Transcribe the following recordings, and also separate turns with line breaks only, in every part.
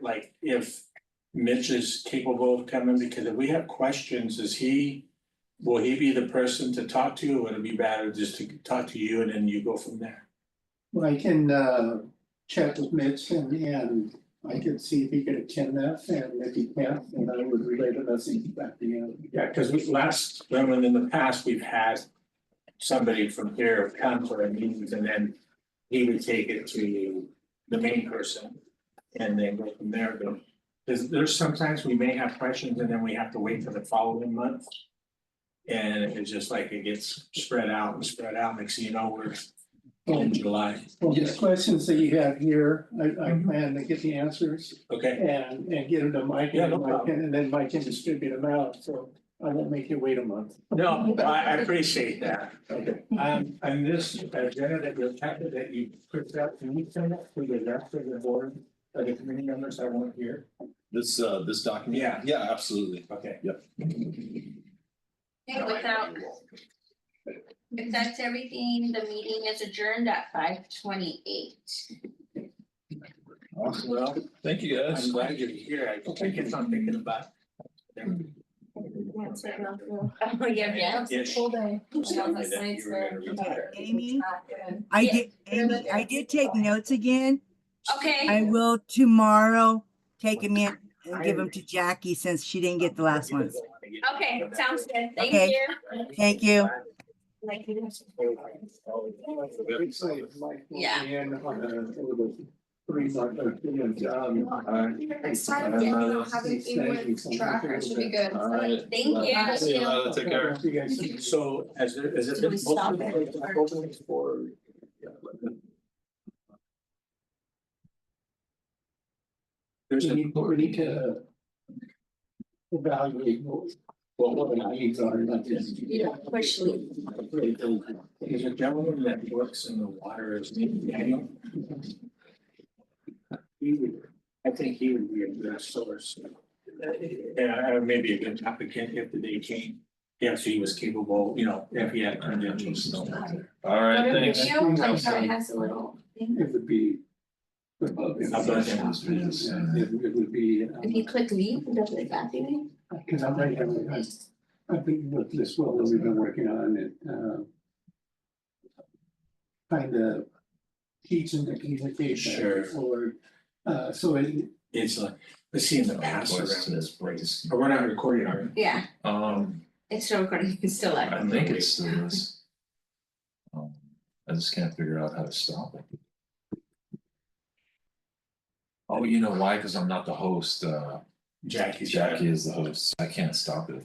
like if Mitch is capable of coming, because if we have questions, is he? Will he be the person to talk to, or would it be better just to talk to you and then you go from there?
Well, I can uh chat with Mitch and and I can see if he could attend that and if he can't, then I would relay the message back to you.
Yeah, because we last, when when in the past, we've had somebody from here come for our meetings and then he would take it to the main person and then go from there, but there's there's sometimes we may have questions and then we have to wait for the following month. And it's just like it gets spread out and spread out, next thing you know, we're in July,
Well, the questions that you have here, I I
Mhm.
plan to get the answers
okay?
and and get them to Mike
Yeah,
and
no
then Mike can, and then Mike can distribute them out, so I won't make you wait a month.
No, I I appreciate that.
Okay.
Um, and this agenda that you're, that you put out, can we send that to the rest of the board, of the committee members that weren't here?
This, uh, this document?
Yeah.
Yeah, absolutely.
Okay.
Okay, without, if that's everything, the meeting is adjourned at five twenty-eight.
Well,
Thank you,
I'm
guys.
glad you're here. I think it's not thinking about.
Oh, yeah, yeah.
Yes.
day.
Amy? I
Yeah.
did, Amy, I did take notes again. I
Okay,
will tomorrow take them in and give them to Jackie since she didn't get the last ones.
okay, sounds good, thank
Okay.
you.
Thank you.
Obviously, if Mike will
Yeah.
be in on the three month or two month job.
Next time, yeah, we don't have an English tracker, it should be good.
All right.
Thank you.
Well, See you later. Take care.
You guys.
So as there, is it?
Do we stop it?
For. There's
We
a.
need, we need to. uh, Evaluate what, what our needs are, not just.
Yeah, especially.
There's a gentleman that works in the water, his name is Daniel. He would, I think he would be a good source. Yeah, uh, maybe a good applicant if the day came, if he was capable, you know, if he had credentials.
All right,
Whatever
thanks.
video, like how it has a little thing.
It would be. It would be, uh,
If you click leave, it does it that thing.
because I'm right, I, I've been with this well that we've been working on it, uh. Kind of teaching the communication
Sure.
for, uh, so it,
It's like, let's see in the past around this,
breaks.
but we're not recording, are we?
Yeah,
Um,
it's still recording, it's still live.
I think it's still this. Um, I just can't figure out how to stop it. Oh, you know why? Cause I'm not the host. Uh,
Jackie, Jackie.
Jackie is the host. I can't stop it.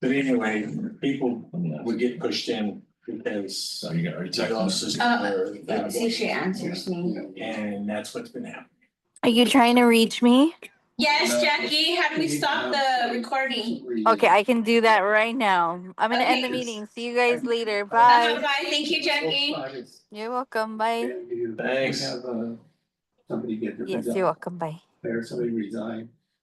But anyway, people
Let me ask.
would get pushed in because.
So you got, are you texting? us?
Uh, see if she answers me.
And that's what's been happening.
Are you trying to reach me?
Uh,
Yes, Jackie, how do we stop the recording?
Okay, I can do that right now. I'm gonna end the
Okay.
meeting. See you guys later.
Uh,
Bye.
Bye, thank you, Jackie.
You're welcome. Bye.
And you
Thanks.
Have, uh, somebody get. their
Yes,
job
you're welcome. Bye.
There, somebody resign.